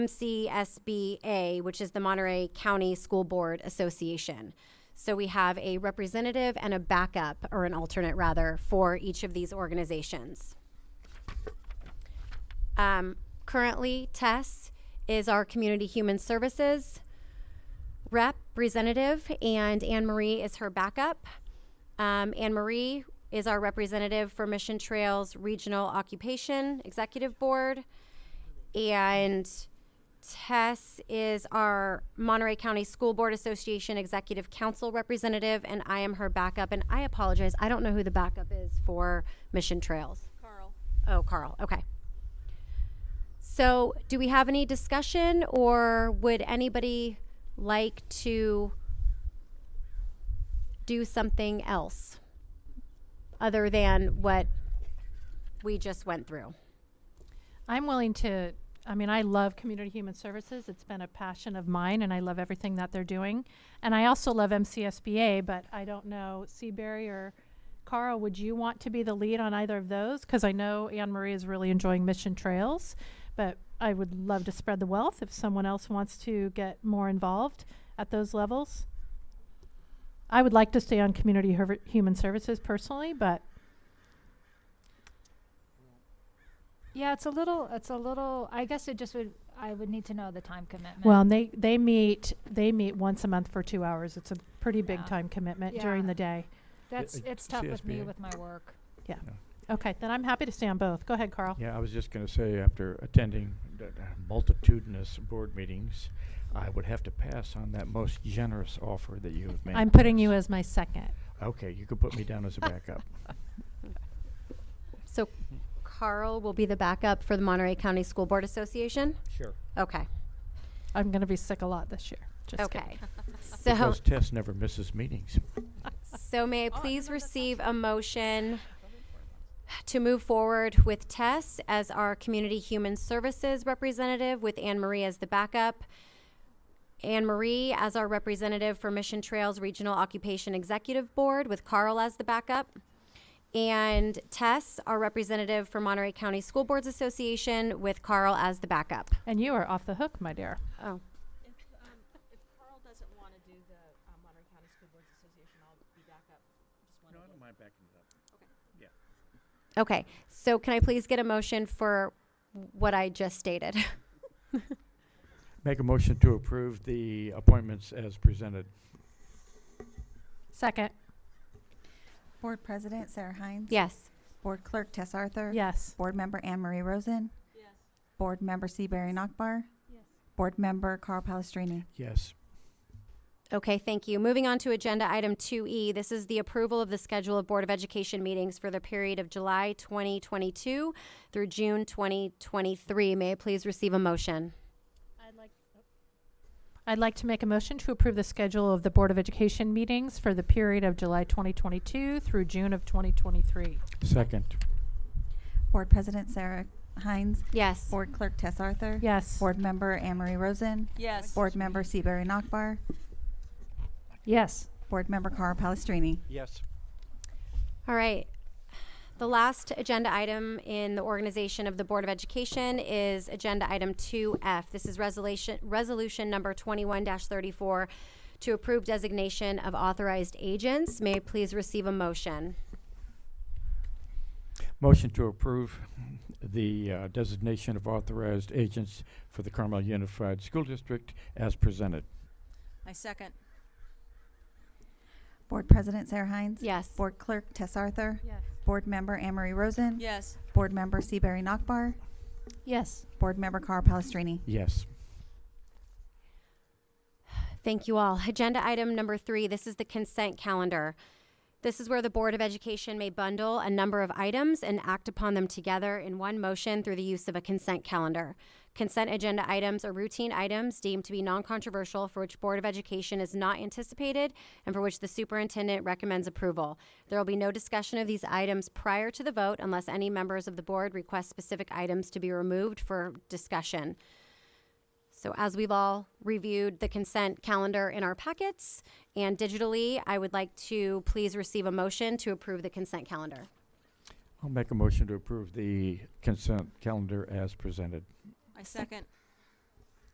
MCSBA, which is the Monterey County School Board Association. So we have a representative and a backup, or an alternate rather, for each of these organizations. Um, currently, Tess is our Community Human Services representative, and Anne Marie is her backup. Um, Anne Marie is our representative for Mission Trails Regional Occupation Executive Board. And Tess is our Monterey County School Board Association Executive Council representative, and I am her backup. And I apologize, I don't know who the backup is for Mission Trails. Carl. Oh, Carl, okay. So, do we have any discussion, or would anybody like to do something else other than what we just went through? I'm willing to, I mean, I love community human services. It's been a passion of mine, and I love everything that they're doing. And I also love MCSBA, but I don't know, Seabury or Carl, would you want to be the lead on either of those? Because I know Anne Marie is really enjoying Mission Trails, but I would love to spread the wealth if someone else wants to get more involved at those levels. I would like to stay on community herv- human services personally, but Yeah, it's a little, it's a little, I guess it just would, I would need to know the time commitment. Well, and they, they meet, they meet once a month for two hours. It's a pretty big Yeah. time commitment Yeah. during the day. That's, uh, it's tough with me CSBA. with my work. Okay, then I'm happy to stay on both. Go ahead, Carl. Yeah, I was just going to say, after attending the- the multitudinous board meetings, I would have to pass on that most generous offer that you have made. I'm to putting us. you as my second. Okay, you could put me down as a backup. So Carl will be the backup for the Monterey County School Board Association? Sure. Okay, I'm going to be sick a lot this year. Just kidding. okay. So, Because Tess never misses meetings. so may I Oh, I please remember that receive a motion to move forward with Tess as our Community Human Services Representative with Anne Marie as the backup? Anne Marie as our representative for Mission Trails Regional Occupation Executive Board with Carl as the backup? And Tess, our representative for Monterey County School Boards Association with Carl as the backup? And you are off the hook, my dear. Oh. If, um, if Carl doesn't want to do the um, Monterey County School Boards Association, I'll be back up. Just one of them. mind backing it up. Okay, so can I please get a motion for what I just stated? Make a motion to approve the appointments as presented. Second, Board President Sarah Hines. Yes. Board Clerk Tess Arthur. yes. Board Member Anne Marie Rosen. Yes. Board Member Seabury Nockbar. Yes. Board Member Carl Palestrini. Yes. Okay, thank you. Moving on to agenda item 2E. This is the approval of the schedule of Board of Education meetings for the period of July 2022 through June 2023. May I please receive a motion? oh. I'd like to make a motion to approve the schedule of the Board of Education meetings for the period of July 2022 through June of 2023. Second. Board President Sarah Hines. Yes. Board Clerk Tess Arthur. Yes. Board Member Anne Marie Rosen. Yes. Board Member Seabury Nockbar. Yes. Board Member Carl Palestrini. Yes. All right. The last agenda item in the organization of the Board of Education is Agenda Item 2F. This is resolution, resolution number 21-34 to approve designation of authorized agents. May I please receive a motion? Motion to approve the uh, designation of authorized agents for the Carmel Unified School District as presented. I second. Board President Sarah Hines. Yes. Board Clerk Tess Arthur. Yes. Board Member Anne Marie Rosen. Yes. Board Member Seabury Nockbar. Yes. Board Member Carl Palestrini. Yes. Thank you all. Agenda item number three this is the consent calendar. This is where the Board of Education may bundle a number of items and act upon them together in one motion through the use of a consent calendar. Consent agenda items are routine items deemed to be non controversial for which Board of Education is not anticipated and for which the superintendent recommends approval. There will be no discussion of these items prior to the vote unless any members of the board request specific items to be removed for discussion. So as we've all reviewed the consent calendar in our packets and digitally, I would like to please receive a motion to approve the consent calendar. I'll make a motion to approve the consent calendar as presented. I second.